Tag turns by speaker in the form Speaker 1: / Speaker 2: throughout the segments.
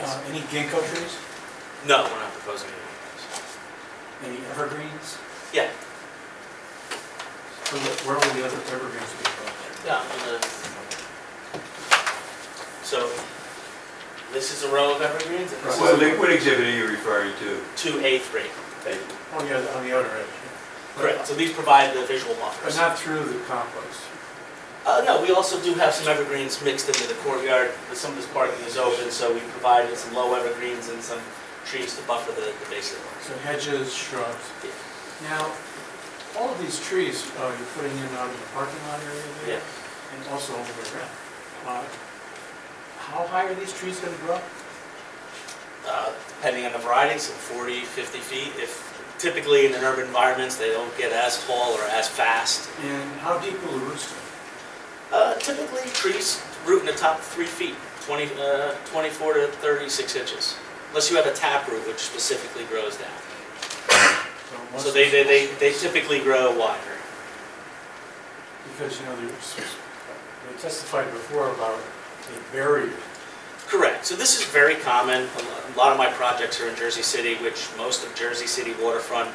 Speaker 1: Uh, Any ginkgo trees,
Speaker 2: No, we're not proposing anything.
Speaker 1: any evergreens?
Speaker 2: Yeah.
Speaker 1: Where would- Where would the other evergreens be from?
Speaker 2: Yeah, I'm gonna- So, this is a row of evergreens, and this
Speaker 3: Well,
Speaker 2: is
Speaker 3: What exhibit are you referring to?
Speaker 2: two A three.
Speaker 1: Oh, yeah, on the other edge. yeah.
Speaker 2: Correct, so these provide the visual
Speaker 1: But
Speaker 2: markers.
Speaker 1: not through the compost.
Speaker 2: Uh, no, we also do have some evergreens mixed into the courtyard, but some of this parking is open, so we provided some low evergreens and some trees to buffer the, the base of the park.
Speaker 1: So hedges, shrubs.
Speaker 2: Yeah.
Speaker 1: Now, all of these trees uh, you're putting in out in the parking lot area there? And also over the ground. Uh, How high are these trees going to grow?
Speaker 2: Uh, depending on the variety, some 40, 50 feet. If typically in an urban environments, they don't get as tall or as fast.
Speaker 1: And how deep will the roots go?
Speaker 2: Uh, typically, trees root in the top three feet, 20, uh, 24 to 36 inches, unless you have a tap root, which specifically grows down.
Speaker 1: once
Speaker 2: So they, they, they
Speaker 1: it's-
Speaker 2: they typically grow wider.
Speaker 1: Because, you know, there's, they testified before about the barrier.
Speaker 2: Correct. So this is very common. A lo- A lot of my projects are in Jersey City, which most of Jersey City waterfront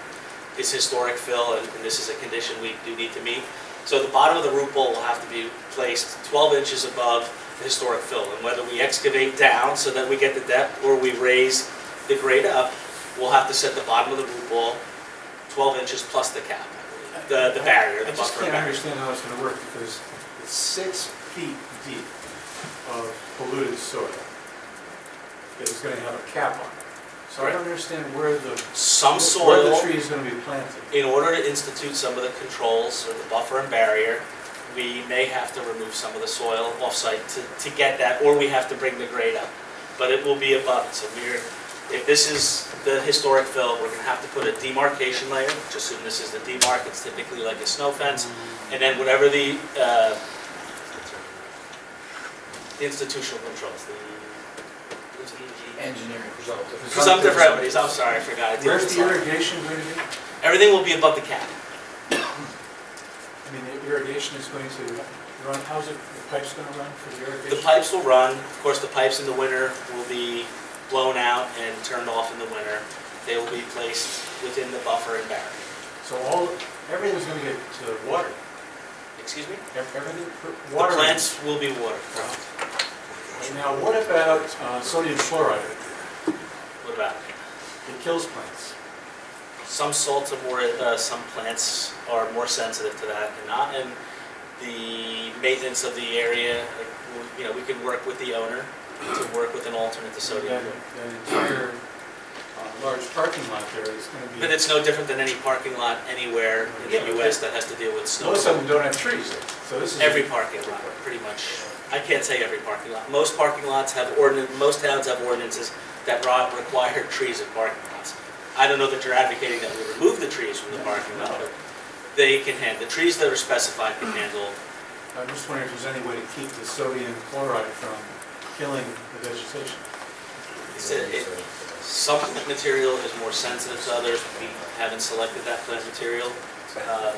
Speaker 2: is historic fill, and and this is a condition we do need to meet. So the bottom of the root bowl will have to be placed 12 inches above the historic fill. And whether we excavate down so that we get the depth, or we raise the grade up, we'll have to set the bottom of the root bowl 12 inches plus the cap, I believe. Uh, the the barrier, the
Speaker 1: I just
Speaker 2: buffer
Speaker 1: can't
Speaker 2: barrier.
Speaker 1: understand how it's going to work because it's six feet deep of polluted soil. It is going to have a cap on it. So I don't understand where the
Speaker 2: Some soil...
Speaker 1: Where the tree is gonna be planted.
Speaker 2: In order to institute some of the controls or the buffer and barrier, we may have to remove some of the soil off-site to, to get that, or we have to bring the grade up. But it will be above, it. so we're, if this is the historic fill, we're gonna have to put a demarcation layer, which assume this is the demarc, it's typically like a snow fence, and then whatever the, uh, the institutional controls, the.
Speaker 4: engineering presumptive.
Speaker 2: Presumptive remedies, I'm sorry, I forgot. I did
Speaker 1: Where's
Speaker 2: this
Speaker 1: the
Speaker 2: slide.
Speaker 1: irrigation going to be?
Speaker 2: Everything will be above the cap.
Speaker 1: I mean, the irrigation is going to run, how's it, the pipe's gonna run for the
Speaker 2: The
Speaker 1: irrigation?
Speaker 2: pipes will run, of course, the pipes in the winter will be blown out and turned off in the winter. They will be placed within the buffer and barrier.
Speaker 1: So all, everything's gonna get to water,
Speaker 2: Excuse me?
Speaker 1: Ev- everything, per-
Speaker 2: The
Speaker 1: water.
Speaker 2: plants will be watered.
Speaker 1: Now, what about uh, sodium chloride?
Speaker 2: What about? it?
Speaker 1: It kills plants.
Speaker 2: Some salts are more, uh, some plants are more sensitive to that than not. And the maintenance of the area, like, we'll- you know, we can work with the owner to work with an alternate to
Speaker 1: That
Speaker 2: sodium.
Speaker 1: that entire uh, large parking lot there is gonna be.
Speaker 2: But it's no different than any parking lot anywhere in
Speaker 1: Yeah, but
Speaker 2: the US that has to deal with snow.
Speaker 1: Most of them don't have trees, so this is.
Speaker 2: Every parking lot, pretty much. I can't say every parking lot. Most parking lots have ordinance, most towns have ordinances that ro- require trees in parking lots. I don't know that you're advocating that we remove the trees from the parking lot, but they can handle, the trees that are specified can handle.
Speaker 1: I'm just wondering if there's any way to keep the sodium chloride from killing the vegetation.
Speaker 2: It's a- it- Some plant material is more sensitive to others. We haven't selected that plant material. Uh,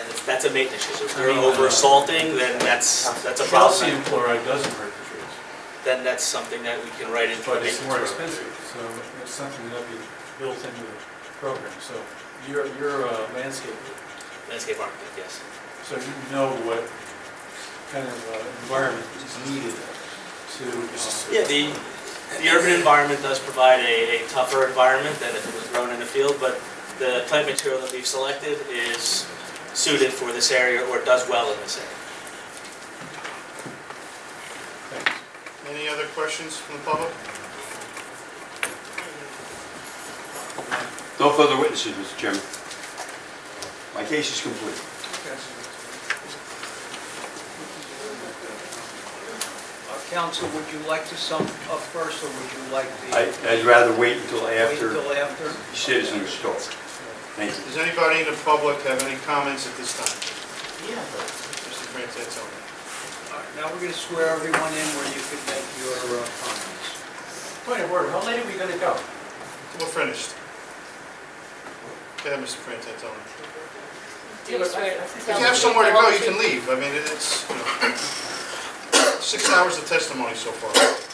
Speaker 2: And if that's a maintenance issue. If they're over salting, then that's, that's a problem.
Speaker 1: Calcium chloride doesn't hurt the trees,
Speaker 2: Then that's something that we can write into. the
Speaker 1: but it's more
Speaker 2: maintenance program.
Speaker 1: expensive, so it's something that be built into the program. So uh, you're, you're a landscaper,
Speaker 2: Landscape architect, yes.
Speaker 1: so you know what kind of uh, environment is needed to. um,
Speaker 2: Yeah, the, the urban environment does provide a, a tougher environment than if it was grown in a field, but the plant material that we've selected is suited for this area or does well in this area.
Speaker 1: thanks.
Speaker 5: Any other questions from the public?
Speaker 3: No further witnesses, Mr. Chairman. My case is complete.
Speaker 4: Uh, Counsel, would you like to sum up first, or would you like the...
Speaker 3: I- I'd rather wait until
Speaker 4: Wait
Speaker 3: after
Speaker 4: until after?
Speaker 3: citizens talk. Thank you.
Speaker 5: Does anybody in the public have any comments at this time?
Speaker 4: Yeah.
Speaker 5: Mr. Frantantoni?
Speaker 4: All right, Now, we're going to swear everyone in where you could make your uh, comments.
Speaker 1: Point of order, how late are we gonna go?
Speaker 5: We're finished. Go ahead, Mr. Frantantoni.
Speaker 6: Do you swear to
Speaker 5: If
Speaker 6: tell
Speaker 5: you
Speaker 6: the
Speaker 5: have somewhere to go, you can
Speaker 6: truth,
Speaker 5: leave. I mean, it's, you know, six hours of testimony so far.